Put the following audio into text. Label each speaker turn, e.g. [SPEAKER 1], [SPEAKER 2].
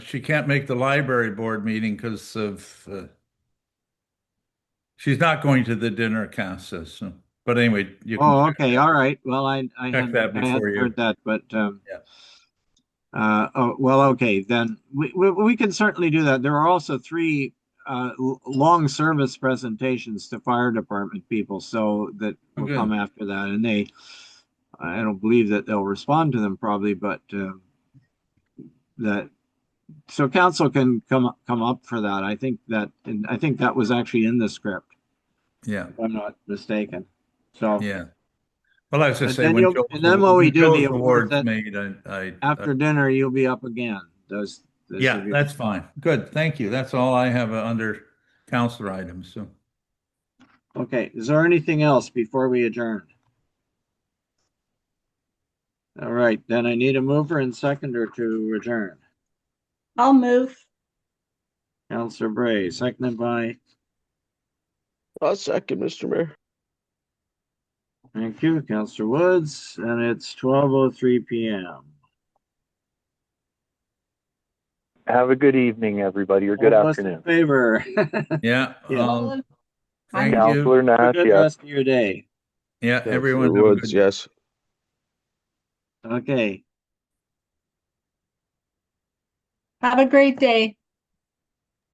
[SPEAKER 1] she can't make the library board meeting because of, uh, she's not going to the dinner casa, so, but anyway, you
[SPEAKER 2] Oh,
[SPEAKER 1] can,
[SPEAKER 2] okay, all right. Well, I, I
[SPEAKER 1] Check
[SPEAKER 2] hadn't,
[SPEAKER 1] that
[SPEAKER 2] I
[SPEAKER 1] before
[SPEAKER 2] hadn't
[SPEAKER 1] you-
[SPEAKER 2] heard that, but, um,
[SPEAKER 1] Yeah.
[SPEAKER 2] uh, oh, well, okay, then we, we, we can certainly do that. There are also three, uh, l- long service presentations to fire department people, so that
[SPEAKER 1] Oh,
[SPEAKER 2] will
[SPEAKER 1] good.
[SPEAKER 2] come after that, and they, I don't believe that they'll respond to them probably, but, um, that, so council can come, up- come up for that. I think that, and I think that was actually in the script,
[SPEAKER 1] yeah,
[SPEAKER 2] if I'm not mistaken. So.
[SPEAKER 1] yeah. Well, I was just
[SPEAKER 2] And
[SPEAKER 1] saying.
[SPEAKER 2] then
[SPEAKER 1] when
[SPEAKER 2] you'll-
[SPEAKER 1] Joe's-
[SPEAKER 2] and then when we
[SPEAKER 1] when
[SPEAKER 2] do
[SPEAKER 1] Joe's
[SPEAKER 2] the awards, that-
[SPEAKER 1] Made, I, I,
[SPEAKER 2] after dinner, you'll be up again. Those. those
[SPEAKER 1] yeah,
[SPEAKER 2] of you-
[SPEAKER 1] that's fine. Good, thank you. That's all I have uh, under counselor items, so.
[SPEAKER 2] Okay, is there anything else before we adjourn? All right, then I need a mover and seconder to adjourn.
[SPEAKER 3] I'll move.
[SPEAKER 2] Counselor Bray, seconded by,
[SPEAKER 4] I'll second, Mr. Mayor.
[SPEAKER 2] thank you, Counselor Woods, and it's twelve oh three PM.
[SPEAKER 5] Have a good evening, everybody, or good
[SPEAKER 2] All of us in
[SPEAKER 5] afternoon.
[SPEAKER 2] Favor.
[SPEAKER 1] Yeah.
[SPEAKER 2] Yeah.
[SPEAKER 1] um, Thank you.
[SPEAKER 5] Counselor Nash,
[SPEAKER 2] Good
[SPEAKER 5] yes.
[SPEAKER 2] rest of your day.
[SPEAKER 1] Yeah,
[SPEAKER 4] Counselor
[SPEAKER 1] everyone. have a good
[SPEAKER 4] Woods, yes.
[SPEAKER 2] Okay.
[SPEAKER 3] Have a great day.